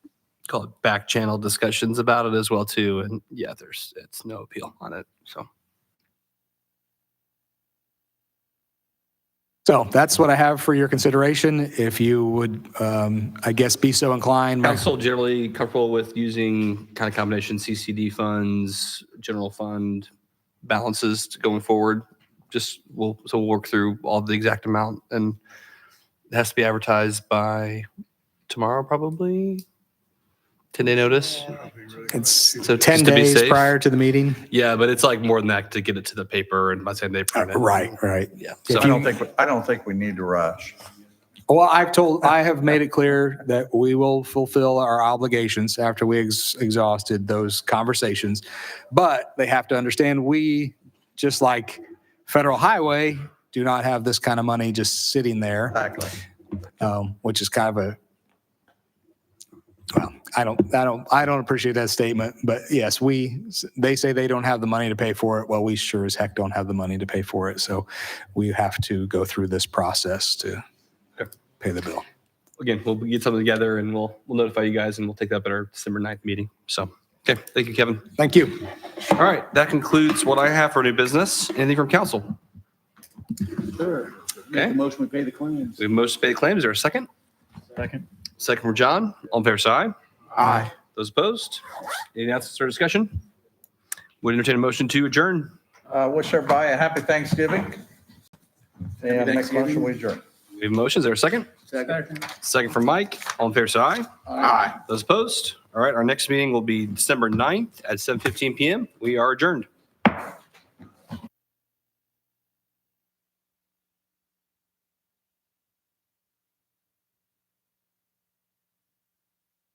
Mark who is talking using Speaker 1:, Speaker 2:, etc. Speaker 1: call it back channel discussions about it as well too. And yeah, there's it's no appeal on it. So
Speaker 2: So that's what I have for your consideration. If you would, um, I guess, be so inclined. my-
Speaker 1: council generally comfortable with using kind of combination CCD funds, general fund balances to- going forward. Just we'll so we'll work through all the exact amount and it has to be advertised by tomorrow probably. Ten day notice.
Speaker 2: It's
Speaker 1: So
Speaker 2: 10
Speaker 1: just to be
Speaker 2: days
Speaker 1: safe.
Speaker 2: prior to the meeting.
Speaker 1: Yeah, but it's like more than that to get it to the paper and by the time they
Speaker 2: Uh,
Speaker 1: print it.
Speaker 2: Right, right.
Speaker 1: Yeah.
Speaker 2: If
Speaker 1: So
Speaker 3: I don't think, we- I don't think we need to rush.
Speaker 2: Well, I've told, I have made it clear that we will fulfill our obligations after we ex- exhausted those conversations. But they have to understand, we, just like Federal Highway, do not have this kind of money just sitting there.
Speaker 3: Exactly.
Speaker 2: um, which is kind of a well, I don't, I don't, I don't appreciate that statement. But yes, we they say they don't have the money to pay for it. Well, we sure as heck don't have the money to pay for it. So we have to go through this process to
Speaker 1: Okay.
Speaker 2: pay the bill.
Speaker 1: again, we'll get something together and we'll, we'll notify you guys and we'll take that up at our December 9th meeting. So, okay, thank you, Kevin.
Speaker 2: Thank you.
Speaker 1: All right, that concludes what I have for new business. Anything from council?
Speaker 4: Sure. Make
Speaker 1: Okay.
Speaker 4: the motion, we pay the claims.
Speaker 1: We have most paid claims. Is there a second?
Speaker 4: Second.
Speaker 1: Second from John. All in favor, say aye.
Speaker 2: Aye.
Speaker 1: Those opposed? Any announcements or discussion? Would entertain a motion to adjourn.
Speaker 3: Uh, wish everybody a happy Thanksgiving. And make a motion, we adjourn.
Speaker 1: We have motions. Is there a second?
Speaker 4: Second.
Speaker 1: Second from Mike. All in favor, say aye. Aye. Those opposed? All right, our next meeting will be December 9th at 7:15 PM. We are adjourned.